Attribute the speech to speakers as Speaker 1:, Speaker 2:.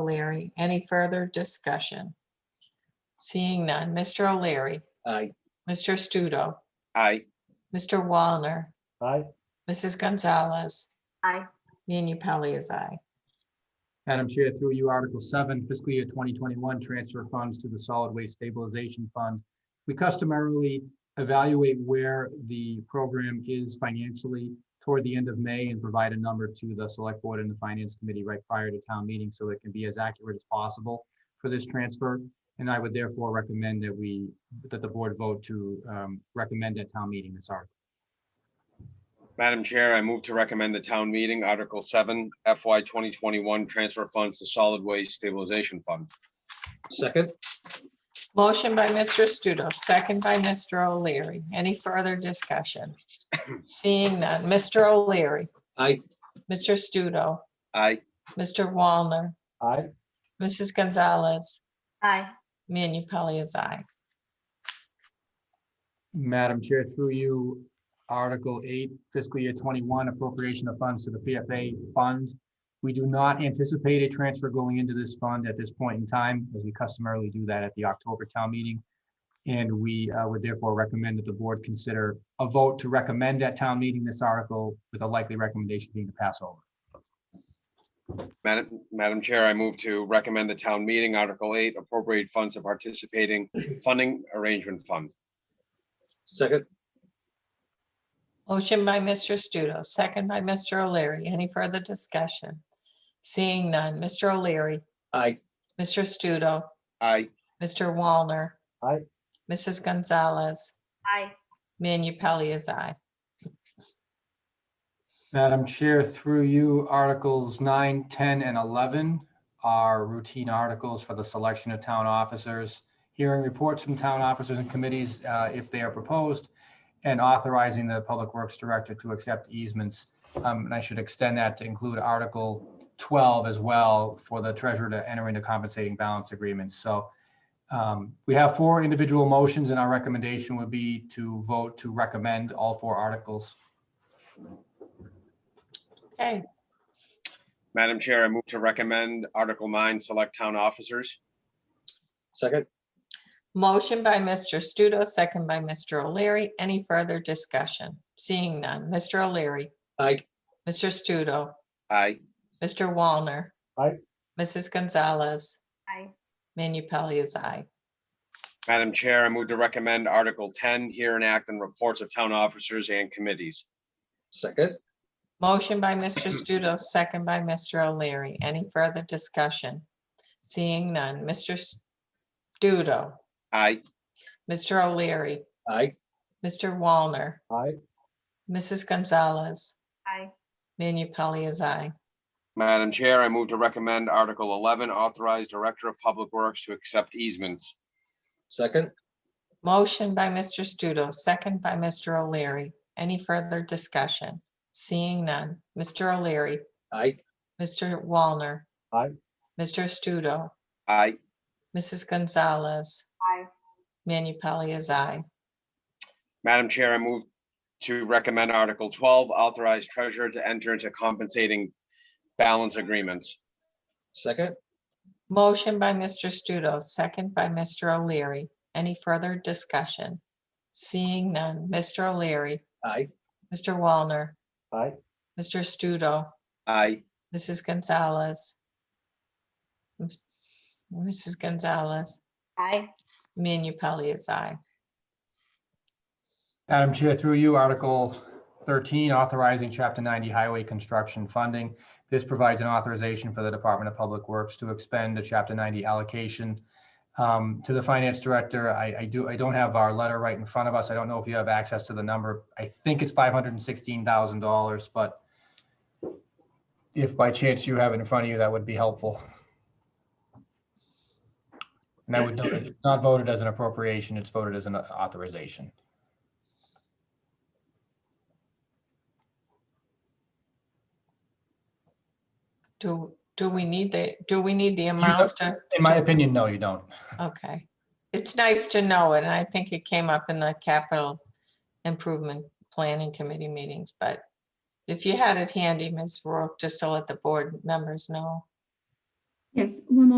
Speaker 1: O'Leary. Any further discussion? Seeing none. Mr. O'Leary,
Speaker 2: Aye.
Speaker 1: Mr. Studo,
Speaker 2: Aye.
Speaker 1: Mr. Wallner,
Speaker 3: Aye.
Speaker 1: Mrs. Gonzalez.
Speaker 4: Aye.
Speaker 1: Manu Pelley is aye.
Speaker 3: Madam Chair, through you, Article 7, fiscal year 2021, transfer funds to the Solid Waste Stabilization Fund. We customarily evaluate where the program is financially toward the end of May and provide a number to the Select Board and the Finance Committee right prior to town meeting so it can be as accurate as possible for this transfer. And I would therefore recommend that we, that the board vote to um, recommend at town meeting this article.
Speaker 5: Madam Chair, I move to recommend the town meeting Article seven FY twenty twenty-one transfer funds to solid waste stabilization fund.
Speaker 2: Second?
Speaker 1: Motion by Mr. Studo, second by Mr. O'Leary. Any further discussion? Seeing none. Mr. O'Leary,
Speaker 2: Aye.
Speaker 1: Mr. Studo,
Speaker 5: Aye.
Speaker 1: Mr. Wallner,
Speaker 3: Aye.
Speaker 1: Mrs. Gonzalez.
Speaker 4: aye,
Speaker 1: Manu Pelley is aye.
Speaker 3: Madam Chair, through you, Article 8, fiscal year 21 appropriation of funds to the PFA fund. We do not anticipate a transfer going into this fund at this point in time, as we customarily do that at the October town meeting. And we uh, would therefore recommend that the board consider a vote to recommend at town meeting this article with a likely recommendation being to pass over.
Speaker 5: Madam, Madam Chair, I move to recommend the town meeting Article eight appropriate funds of participating funding arrangement fund.
Speaker 2: Second?
Speaker 1: Motion by Mr. Studo, second by Mr. O'Leary. Any further discussion? Seeing none. Mr. O'Leary,
Speaker 2: Aye.
Speaker 1: Mr. Studo,
Speaker 5: Aye.
Speaker 1: Mr. Wallner.
Speaker 3: Aye.
Speaker 1: Mrs. Gonzalez,
Speaker 4: aye,
Speaker 1: Manu Pelley is aye.
Speaker 3: Madam Chair, through you, Articles 9, 10, and 11 are routine articles for the selection of town officers, hearing reports from town officers and committees uh, if they are proposed, and authorizing the Public Works Director to accept easements. Um, And I should extend that to include Article 12 as well for the treasurer to enter into compensating balance agreements. So um, we have four individual motions, and our recommendation would be to vote to recommend all four articles.
Speaker 1: Okay,
Speaker 5: Madam Chair, I move to recommend Article nine select town officers.
Speaker 2: Second?
Speaker 1: motion by Mr. Studo, second by Mr. O'Leary. Any further discussion? Seeing none. Mr. O'Leary,
Speaker 2: Aye.
Speaker 1: Mr. Studo,
Speaker 5: Aye.
Speaker 1: Mr. Wallner.
Speaker 3: Aye.
Speaker 1: Mrs. Gonzalez,
Speaker 4: aye,
Speaker 1: Manu Pelley is aye.
Speaker 5: Madam Chair, I move to recommend Article ten here and act on reports of town officers and committees.
Speaker 2: Second?
Speaker 1: Motion by Mr. Studo, second by Mr. O'Leary. Any further discussion? Seeing none. Mr. Studo,
Speaker 5: Aye.
Speaker 1: Mr. O'Leary,
Speaker 2: Aye.
Speaker 1: Mr. Wallner,
Speaker 3: Aye.
Speaker 1: Mrs. Gonzalez,
Speaker 4: aye,
Speaker 1: Manu Pelley is aye.
Speaker 5: Madam Chair, I move to recommend Article eleven authorize Director of Public Works to accept easements.
Speaker 2: Second?
Speaker 1: Motion by Mr. Studo, second by Mr. O'Leary. Any further discussion? Seeing none. Mr. O'Leary,
Speaker 2: Aye.
Speaker 1: Mr. Wallner.
Speaker 3: Aye.
Speaker 1: Mr. Studo,
Speaker 5: Aye.
Speaker 1: Mrs. Gonzalez,
Speaker 4: aye,
Speaker 1: Manu Pelley is aye.
Speaker 5: Madam Chair, I move to recommend Article twelve, authorize treasurer to enter into compensating balance agreements.
Speaker 2: Second?
Speaker 1: Motion by Mr. Studo, second by Mr. O'Leary. Any further discussion? Seeing none. Mr. O'Leary,
Speaker 2: Aye.
Speaker 1: Mr. Wallner,
Speaker 3: Aye.
Speaker 1: Mr. Studo,
Speaker 5: Aye.
Speaker 1: Mrs. Gonzalez. Mrs. Gonzalez,
Speaker 4: aye,
Speaker 1: Manu Pelley is aye.
Speaker 3: Madam Chair, through you, Article 13, authorizing Chapter 90 highway construction funding. This provides an authorization for the Department of Public Works to expend a Chapter 90 allocation. Um, To the Finance Director, I, I do, I don't have our letter right in front of us. I don't know if you have access to the number. I think it's $516,000, but if by chance you have it in front of you, that would be helpful. And I would note that it's not voted as an appropriation, it's voted as an authorization.
Speaker 1: Do, do we need the, do we need the
Speaker 3: don't-
Speaker 1: amount to?
Speaker 3: In my opinion, no, you don't.
Speaker 1: Okay. It's nice to know it, and I think it came up in the capital improvement planning committee meetings, but if you had it handy, Ms. Rourke, just to let the board members know.
Speaker 6: Yes, one moment.